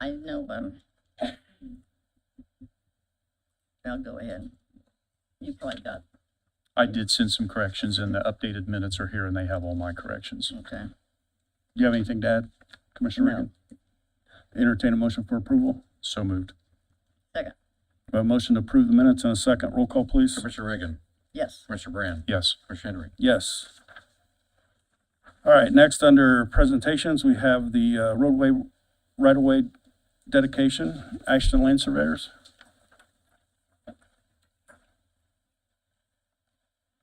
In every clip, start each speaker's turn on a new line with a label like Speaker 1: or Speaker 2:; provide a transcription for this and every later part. Speaker 1: I know um, them. I'll go ahead. You probably got,
Speaker 2: I did send some corrections and the updated minutes are here and they have all my corrections. Do
Speaker 1: okay.
Speaker 2: you have anything to add, Commissioner
Speaker 1: No.
Speaker 2: Reagan? Entertain a motion for approval? So moved.
Speaker 1: Second,
Speaker 2: We have A motion to approve the minutes and a second. Roll call, please.
Speaker 3: Commissioner Reagan,
Speaker 1: yes.
Speaker 3: Commissioner Brand,
Speaker 2: Yes.
Speaker 3: Commissioner Henry.
Speaker 2: Yes. All right, next, under presentations, we have the uh, roadway right-of-way dedication, Ashton Lane Surveyors.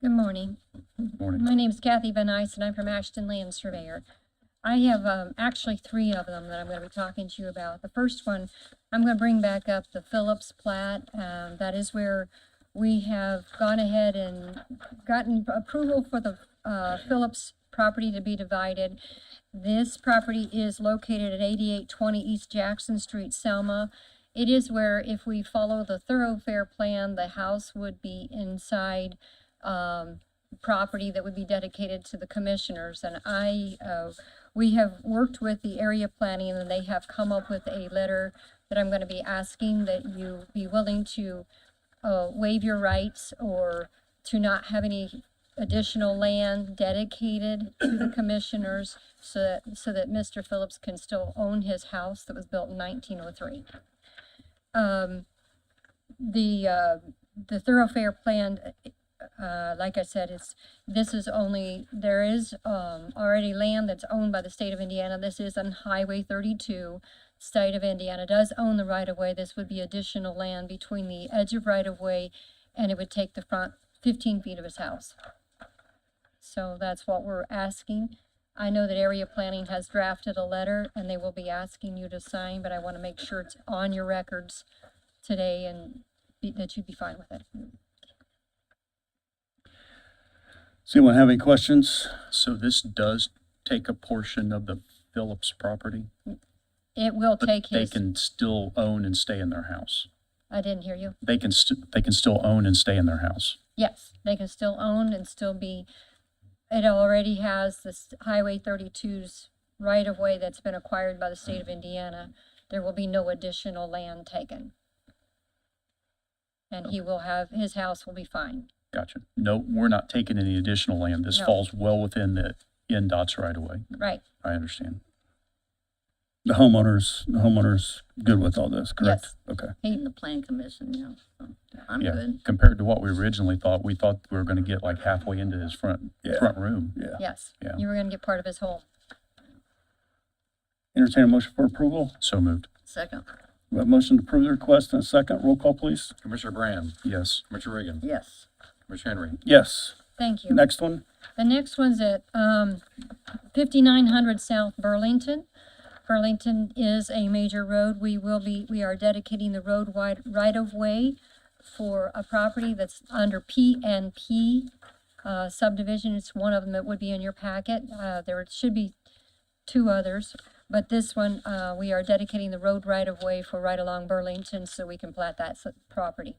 Speaker 4: Good morning.
Speaker 2: Morning.
Speaker 4: My name is Kathy Van Ice, and I'm from Ashton Land Surveyor. I have um, actually three of them that I'm going to be talking to you about. The first one, I'm going to bring back up the Phillips plat. Um, That is where we have gone ahead and gotten approval for the uh, Phillips property to be divided. This property is located at 8820 East Jackson Street, Selma. It is where if we follow the thoroughfare plan, the house would be inside um, property that would be dedicated to the commissioners. And I, uh, we have worked with the area planning and they have come up with a letter that I'm going to be asking that you be willing to uh, waive your rights or to not have any additional land dedicated to the commissioners so that, so that Mr. Phillips can still own his house that was built in 1903. Um, The, uh, the thoroughfare plan uh, like I said, it's, this is only, there is, um, already land that's owned by the state of Indiana. This is on Highway thirty-two. State of Indiana does own the right-of-way. This would be additional land between the edge of right-of-way and it would take the front fifteen feet of his house. So that's what we're asking. I know that area planning has drafted a letter and they will be asking you to sign, but I want to make sure it's on your records today and be- that you'd be fine with it.
Speaker 2: Does anyone have any questions?
Speaker 3: So this does take a portion of the Phillips property?
Speaker 4: It will
Speaker 3: but
Speaker 4: take
Speaker 3: They
Speaker 4: his.
Speaker 3: can still own and stay in their house.
Speaker 4: I didn't hear you.
Speaker 3: They can, st- they can still own and stay in their house.
Speaker 4: Yes, they can still own and still be, it already has this Highway 32's right-of-way that's been acquired by the state of Indiana. There will be no additional land taken. And he will have, his house will be fine.
Speaker 3: Gotcha. No, we're not taking any additional land. This
Speaker 4: No.
Speaker 3: falls well within the NDOT's right away.
Speaker 4: Right,
Speaker 3: I understand.
Speaker 2: The homeowners, the homeowners good with all this, correct?
Speaker 4: Yes.
Speaker 2: Okay.
Speaker 1: In the plan commission, yeah. so I'm
Speaker 3: Yeah,
Speaker 1: good.
Speaker 3: compared to what we originally thought, we thought we were going to get like halfway into his front,
Speaker 2: Yeah.
Speaker 3: front room.
Speaker 2: Yeah.
Speaker 4: yes.
Speaker 3: Yeah.
Speaker 4: You were gonna get part of his home.
Speaker 2: Entertain a motion for approval.
Speaker 3: So moved.
Speaker 1: Second,
Speaker 2: We have a motion to approve the request and a second. Roll call, please.
Speaker 3: Commissioner Brand,
Speaker 2: Yes.
Speaker 3: Commissioner Reagan,
Speaker 1: yes.
Speaker 3: Commissioner Henry.
Speaker 2: Yes.
Speaker 4: Thank you.
Speaker 2: Next one?
Speaker 4: The next one's at um, 5900 South Burlington. Burlington is a major road. We will be, we are dedicating the road wide right-of-way for a property that's under P and P uh, subdivision. It's one of them that would be in your packet. Uh, There should be two others, but this one, uh, we are dedicating the road right-of-way for right along Burlington so we can plat that s- property.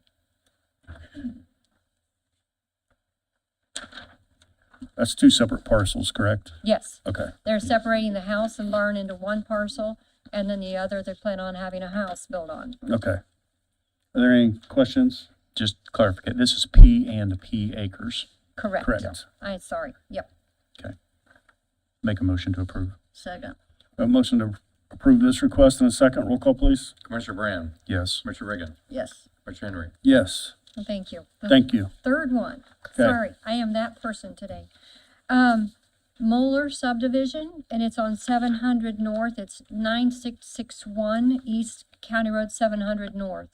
Speaker 2: That's two separate parcels, correct?
Speaker 4: Yes.
Speaker 2: Okay.
Speaker 4: They're separating the house and barn into one parcel, and then the other, they plan on having a house built on.
Speaker 2: Okay. Are there any questions?
Speaker 3: Just clarify, this is P and P acres.
Speaker 4: Correct.
Speaker 2: Correct.
Speaker 4: I'm sorry, yep.
Speaker 3: Make a motion to approve.
Speaker 1: Second,
Speaker 2: We have A motion to approve this request and a second. Roll call, please.
Speaker 5: Commissioner Brand,
Speaker 3: Yes.
Speaker 5: Commissioner Reagan,
Speaker 1: yes.
Speaker 5: Commissioner Henry.
Speaker 2: Yes.
Speaker 4: Well, Thank you. The
Speaker 2: Thank you.
Speaker 4: Third one,
Speaker 2: Okay.
Speaker 4: sorry, I am that person today. Um, Moeller subdivision, and it's on seven hundred north, it's nine six six one East County Road seven hundred north.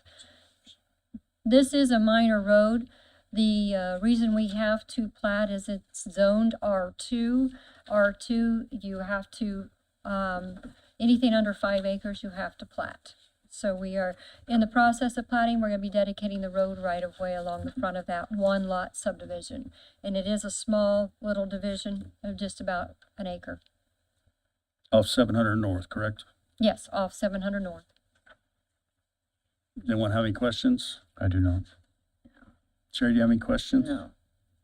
Speaker 4: This is a minor road. The uh, reason we have to plat is it's zoned R2. R2, you have to, um, anything under five acres, you have to plat. So we are in the process of plating. We're going to be dedicating the road right-of-way along the front of that one lot subdivision. And it is a small little division of just about an acre.
Speaker 2: Off 700 North, correct?
Speaker 4: Yes, off 700 North.
Speaker 2: Anyone have any questions?
Speaker 3: I do not.
Speaker 2: Sherry, do you have any questions?
Speaker 1: No,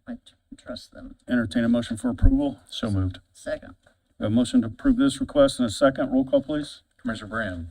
Speaker 1: I tr- trust them.
Speaker 2: Entertain a motion for approval.
Speaker 3: So moved.
Speaker 1: Second,
Speaker 2: We have A motion to approve this request and a second. Roll call, please.
Speaker 5: Commissioner Brand,